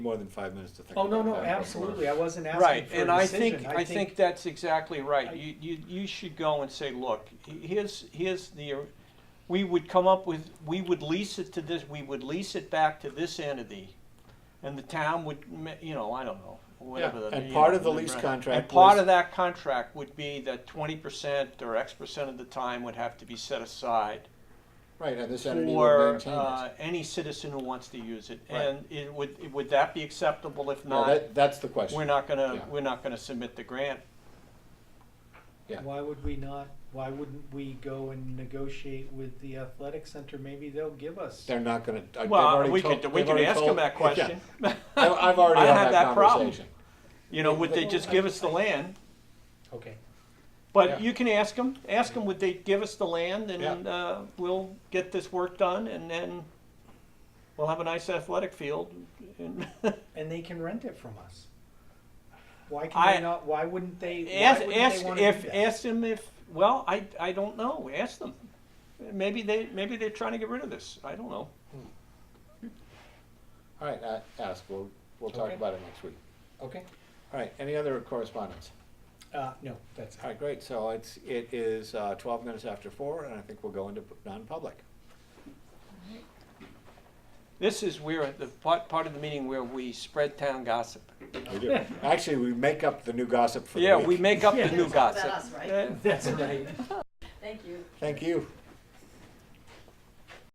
more than five minutes to think Oh, no, about no, that before- absolutely, I wasn't asking Right, for a decision. and I think, I think that's exactly I- right. You, you, you should go and say, look, here's, here's the, we would come up with, we would lease it to this, we would lease it back to this entity, and the town would, ma- you know, I don't know, whatever. Yeah, the- and you part know, of the the lease rent. contract And part was- of that contract would be that twenty percent or X percent of the time would have to be set aside Right, and this entity would for, maintain it. uh, any citizen who wants to use it. Right. And it would, would that be acceptable? If No, not, that, that's the question. we're not Yeah. gonna, we're not gonna submit the grant. Uh, Yeah. Why would we not, why wouldn't we go and negotiate with the athletic center, maybe they'll give us. They're not gonna, I- they've Well, uh, already we told. could, we they've could already ask them told- that yeah. question. I- I've already I had had that that problem. conversation. You know, would they just give us the land? Okay, Yeah. But you can ask them, ask them, would they give us the land and, Yeah. uh, we'll get this work done and then we'll have a nice athletic field. and- and they can rent it from us. Why can I- they not, why wouldn't they, why Ask, wouldn't they ask wanna do if, that? ask them if, well, I, I don't know, ask them. Maybe they, maybe they're trying to get rid of this, I don't know. All right, uh, ask, we'll, we'll talk Okay. about it next week. Okay, All right, any other correspondence? uh, no, that's, All right, great, so it's, it is uh, twelve minutes after four, and I think we'll go into p- non-public. This is where, the part, part of the meeting where we spread town gossip. We do. Actually, we make up the new gossip for the Yeah, we week. make up the Yeah. new It's all about gossip. us, right? Yeah. that's right. Thank you. Thank you.